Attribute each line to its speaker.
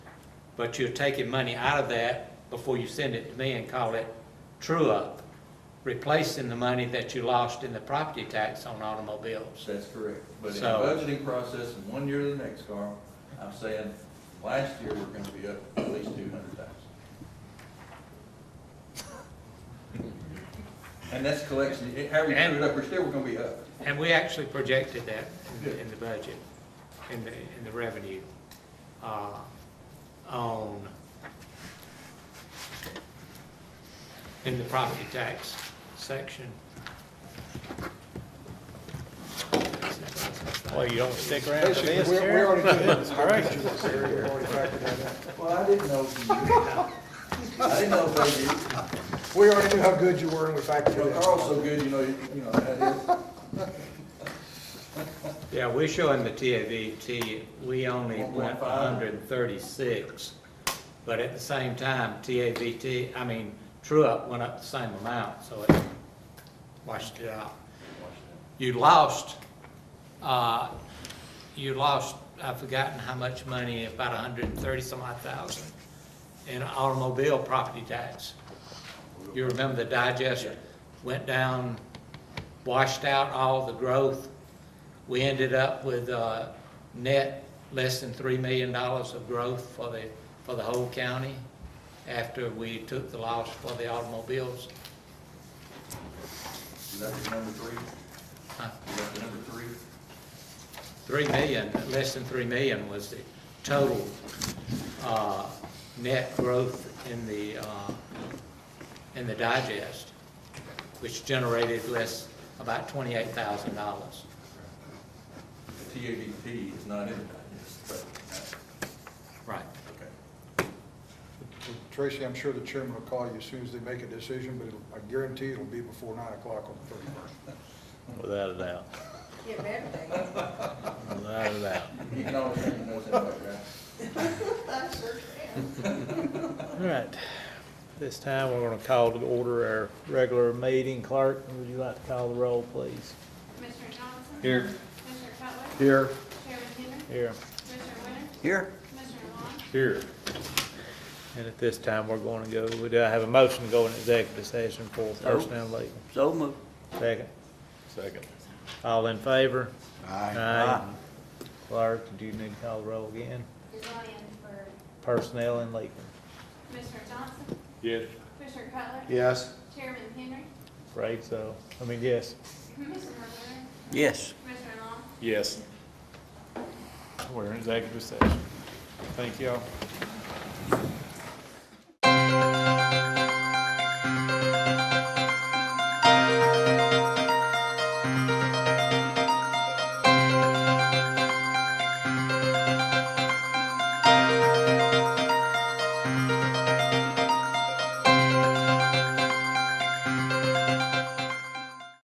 Speaker 1: but you're taking money out of that before you send it to me and call it true-up, replacing the money that you lost in the property tax on automobiles.
Speaker 2: That's correct. But in the
Speaker 1: So-
Speaker 2: budgeting process, from one year to the next, Carl, I'm saying, last year, we're gonna be up at least two hundred thousand. And that's collection, it- however you put it up, we're still, we're gonna be up.
Speaker 1: And we actually projected that in the- in the budget, in the, in the revenue, uh, on, in the property tax section.
Speaker 3: Well, you don't stick around for
Speaker 4: Basically,
Speaker 3: this,
Speaker 4: we we
Speaker 3: Terry?
Speaker 4: already did this.
Speaker 3: All right.
Speaker 4: We already factored that
Speaker 2: Well, I didn't know if you knew. I didn't know if I did.
Speaker 4: in. We already knew how good you were and we factored
Speaker 2: You
Speaker 4: it
Speaker 2: know,
Speaker 4: in.
Speaker 2: Carl's so good, you know, you you know, that
Speaker 1: Yeah, we're showing the TAVT, we only want
Speaker 2: 1.5.
Speaker 1: hundred and thirty-six, but at the same time, TAVT, I mean, true-up went up the same amount, so it washed it out.
Speaker 2: is.
Speaker 1: You lost, uh, you lost, I've forgotten how much money, about a hundred and thirty some odd thousand in automobile property tax. You remember the digester went down, washed out all the growth. We ended up with, uh, net less than three million dollars of growth for the, for the whole county after we took the loss for the automobiles.
Speaker 2: Is that the number three?
Speaker 1: Huh?
Speaker 2: Is that the number three?
Speaker 1: 3 million, less than 3 million was the total uh, net growth in the, uh, in the digest, which generated less, about $28,000.
Speaker 2: The TABT is not in it, yes,
Speaker 1: Right.
Speaker 2: but, uh, okay.
Speaker 4: Tracy, I'm sure the chairman will call you as soon as they make a decision, but it'll- I guarantee it'll be before nine o'clock on the thirty-first.
Speaker 3: Without a doubt,
Speaker 5: Get rid of it.
Speaker 3: without a doubt.
Speaker 2: You can always hang your notes in the background.
Speaker 5: I sure can.
Speaker 3: All right, this time we're gonna call to order our regular meeting. Clerk, would you like to call the roll, please?
Speaker 6: Commissioner Johnson?
Speaker 3: Here.
Speaker 6: Commissioner Cutler?
Speaker 4: Here.
Speaker 6: Chairman Henry?
Speaker 3: Here.
Speaker 6: Commissioner Winter?
Speaker 4: Here.
Speaker 6: Commissioner Long?
Speaker 3: Here. And at this time, we're gonna go, we do have a motion to go in executive session for personnel legal. So moved. Second.
Speaker 7: Second.
Speaker 3: All in favor?
Speaker 7: Aye.
Speaker 3: Clerk, do you need to call the roll again?
Speaker 6: You're going in for
Speaker 3: Personnel and legal.
Speaker 6: Commissioner Johnson?
Speaker 7: Yes.
Speaker 6: Commissioner Cutler?
Speaker 7: Yes.
Speaker 6: Chairman Henry?
Speaker 3: Right, so, I mean, yes,
Speaker 6: Commissioner Winter?
Speaker 7: Yes.
Speaker 6: Commissioner Long?
Speaker 7: Yes.
Speaker 3: we're in executive session. Thank you all.